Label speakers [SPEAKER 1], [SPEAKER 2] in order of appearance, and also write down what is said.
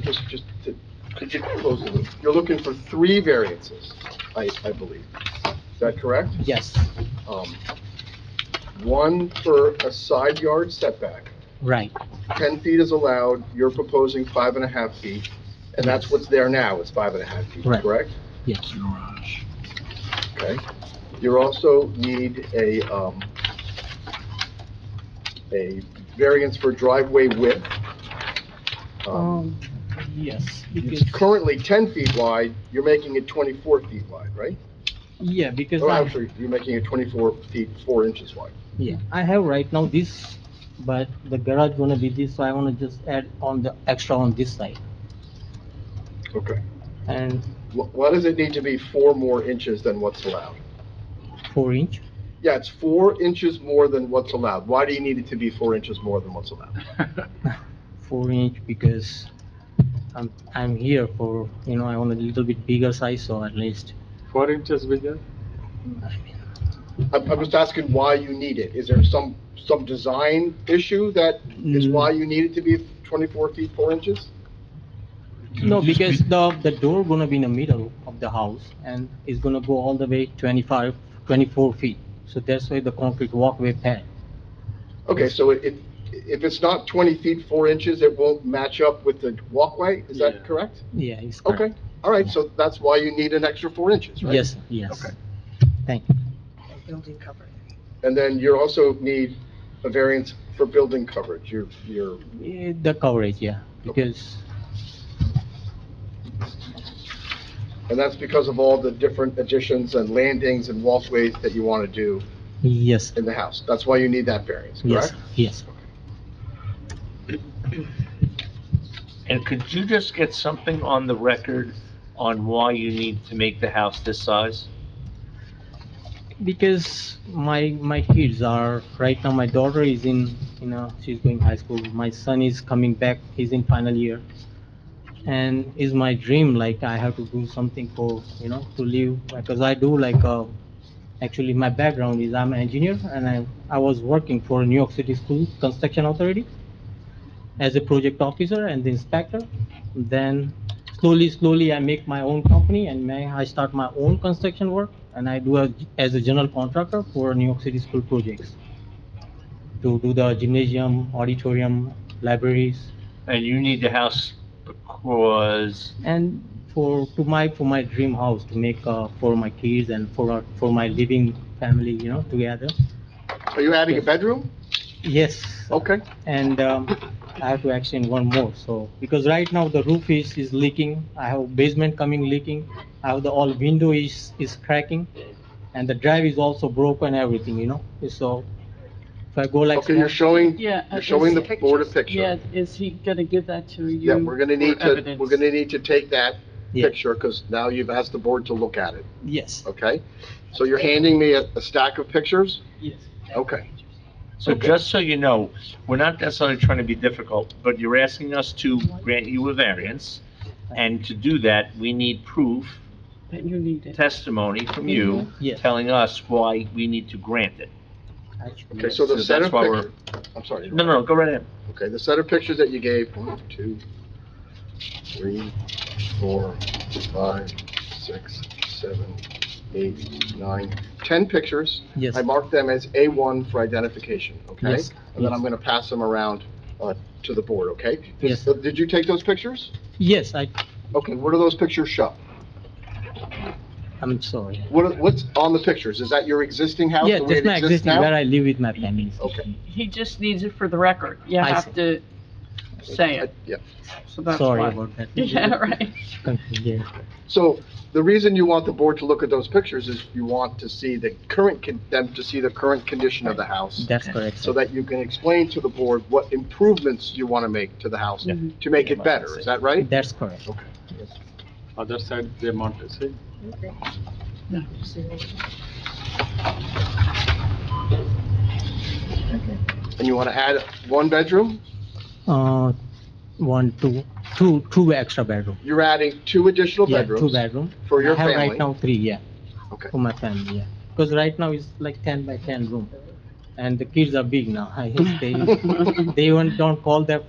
[SPEAKER 1] just, just to, could you close the loop? You're looking for three variances, I, I believe. Is that correct?
[SPEAKER 2] Yes,
[SPEAKER 1] Um, One for a side yard setback.
[SPEAKER 2] right,
[SPEAKER 1] 10 feet is allowed, you're proposing five and a half feet, and that's what's there now, it's five and a half feet,
[SPEAKER 2] Right.
[SPEAKER 1] correct?
[SPEAKER 2] yes.
[SPEAKER 1] Okay. You also need a, um, a variance for driveway width. Um,
[SPEAKER 3] Yes,
[SPEAKER 1] It's
[SPEAKER 3] because,
[SPEAKER 1] currently 10 feet wide, you're making it 24 feet wide, right?
[SPEAKER 3] yeah, because
[SPEAKER 1] Or
[SPEAKER 3] I,
[SPEAKER 1] actually, you're making it 24 feet, 4 inches wide.
[SPEAKER 3] yeah, I have right now this, but the garage gonna be this, so I wanna just add on the extra on this side.
[SPEAKER 1] Okay.
[SPEAKER 3] And
[SPEAKER 1] Wh- Why does it need to be 4 more inches than what's allowed?
[SPEAKER 3] four inch,
[SPEAKER 1] Yeah, it's 4 inches more than what's allowed. Why do you need it to be 4 inches more than what's allowed?
[SPEAKER 3] four inch because I'm, I'm here for, you know, I want a little bit bigger size, so at least.
[SPEAKER 4] Four inches bigger?
[SPEAKER 3] I mean,
[SPEAKER 1] I'm, I'm just asking why you need it. Is there some, some design issue that is
[SPEAKER 3] Mm.
[SPEAKER 1] why you need it to be 24 feet 4 inches?
[SPEAKER 3] No, because the, the door gonna be in the middle of the house and it's gonna go all the way 25, 24 feet. So that's why the concrete walkway pad.
[SPEAKER 1] Okay, so it, it- if it's not 20 feet 4 inches, it won't match up with the walkway? Is
[SPEAKER 4] Yeah.
[SPEAKER 1] that correct?
[SPEAKER 3] Yeah, it's correct.
[SPEAKER 1] Okay, all right, so that's why you need an extra 4 inches, right?
[SPEAKER 3] Yes, yes.
[SPEAKER 1] Okay.
[SPEAKER 3] Thank you.
[SPEAKER 5] building cover.
[SPEAKER 1] And then you also need a variance for building coverage. You're, you're,
[SPEAKER 3] Eh, The coverage, yeah, because,
[SPEAKER 1] and that's because of all the different additions and landings and walkways that you want to do
[SPEAKER 3] yes,
[SPEAKER 1] in the house. That's why you need that variance,
[SPEAKER 3] yes,
[SPEAKER 1] correct?
[SPEAKER 3] yes.
[SPEAKER 6] And could you just get something on the record on why you need to make the house this size?
[SPEAKER 3] Because my, my kids are, right now, my daughter is in, you know, she's going high school. My son is coming back, he's in final year. And is my dream, like, I have to do something for, you know, to live, because I do like, uh, actually, my background is I'm an engineer and I, I was working for New York City School Construction Authority as a project officer and the inspector. Then slowly, slowly, I make my own company and may I start my own construction work. And I do a- as a general contractor for New York City school projects. To do the gymnasium, auditorium, libraries,
[SPEAKER 6] And you need the house because,
[SPEAKER 3] and for, to my, for my dream house to make, uh, for my kids and for, our- for my living family, you know, together.
[SPEAKER 1] Are you adding a bedroom?
[SPEAKER 3] Yes.
[SPEAKER 1] Okay.
[SPEAKER 3] and um, I have to extend one more, so, because right now the roof is, is leaking, I have basement coming leaking, I have the all window is, is cracking, and the drive is also broken, everything, you know, so, if I go like.
[SPEAKER 1] Okay, you're showing,
[SPEAKER 7] Yeah.
[SPEAKER 1] you're
[SPEAKER 7] is-
[SPEAKER 1] showing the board a
[SPEAKER 7] Yeah,
[SPEAKER 1] picture.
[SPEAKER 7] is he gonna give that to you?
[SPEAKER 1] Yeah, we're gonna need
[SPEAKER 7] for
[SPEAKER 1] to,
[SPEAKER 7] evidence?
[SPEAKER 1] we're gonna need to take that
[SPEAKER 3] Yeah,
[SPEAKER 1] picture, because now you've asked the board to look at it,
[SPEAKER 3] Yes,
[SPEAKER 1] okay? So you're handing me a, a stack of pictures?
[SPEAKER 7] Yes.
[SPEAKER 1] Okay.
[SPEAKER 6] so
[SPEAKER 1] Okay.
[SPEAKER 6] just so you know, we're not necessarily trying to be difficult, but you're asking us to grant you a variance. And to do that, we need proof,
[SPEAKER 7] That you need it.
[SPEAKER 6] testimony from you
[SPEAKER 3] yes.
[SPEAKER 6] telling us why we need to grant it.
[SPEAKER 3] actually,
[SPEAKER 1] Okay, so the
[SPEAKER 6] Yes,
[SPEAKER 1] set
[SPEAKER 6] that's
[SPEAKER 1] of
[SPEAKER 6] why we're-
[SPEAKER 1] pictures, I'm sorry.
[SPEAKER 6] No, no, go right ahead.
[SPEAKER 1] Okay, the set of pictures that you gave, one, two, three, four, five, six, seven, eight, nine, ten pictures.
[SPEAKER 3] Yes,
[SPEAKER 1] I marked them as A1 for identification, okay?
[SPEAKER 3] Yes,
[SPEAKER 1] And then I'm
[SPEAKER 3] yes.
[SPEAKER 1] gonna pass them around, uh, to the board, okay? Did-
[SPEAKER 3] Yes.
[SPEAKER 1] uh, Did you take those pictures?
[SPEAKER 3] yes, I,
[SPEAKER 1] Okay, what do those pictures show?
[SPEAKER 3] I'm sorry.
[SPEAKER 1] What, are- what's on the pictures? Is that your existing house?
[SPEAKER 3] Yeah,
[SPEAKER 1] the way
[SPEAKER 3] that's
[SPEAKER 1] it
[SPEAKER 3] my
[SPEAKER 1] exists
[SPEAKER 3] existing,
[SPEAKER 1] now?
[SPEAKER 3] where I live with my family.
[SPEAKER 1] Okay.
[SPEAKER 7] He just needs it for the record. You
[SPEAKER 3] I
[SPEAKER 7] have
[SPEAKER 3] see.
[SPEAKER 7] to say
[SPEAKER 1] Uh,
[SPEAKER 7] it,
[SPEAKER 1] Yeah.
[SPEAKER 7] so that's
[SPEAKER 3] Sorry
[SPEAKER 7] why.
[SPEAKER 3] about that.
[SPEAKER 7] Yeah, right.
[SPEAKER 3] Confusion.
[SPEAKER 1] So the reason you want the board to look at those pictures is you want to see the current, con- them to see the current condition of the house.
[SPEAKER 3] That's correct,
[SPEAKER 1] So
[SPEAKER 3] sir.
[SPEAKER 1] that you can explain to the board what improvements you want to make to the house
[SPEAKER 7] Yeah.
[SPEAKER 1] to make it better. Is that right?
[SPEAKER 3] That's correct.
[SPEAKER 4] Other side they want to see.
[SPEAKER 3] Mm-hmm.
[SPEAKER 1] And you want to add one bedroom?
[SPEAKER 3] Uh, one, two, two, two extra bedroom.
[SPEAKER 1] You're adding two additional
[SPEAKER 3] Yeah, two
[SPEAKER 1] bedrooms
[SPEAKER 3] bedroom.
[SPEAKER 1] for your
[SPEAKER 3] I have right
[SPEAKER 1] family.
[SPEAKER 3] now three, yeah.
[SPEAKER 1] Okay.
[SPEAKER 3] For my family, yeah. Because right now it's like ten by ten room. And the kids are big now. I- They, they even don't call their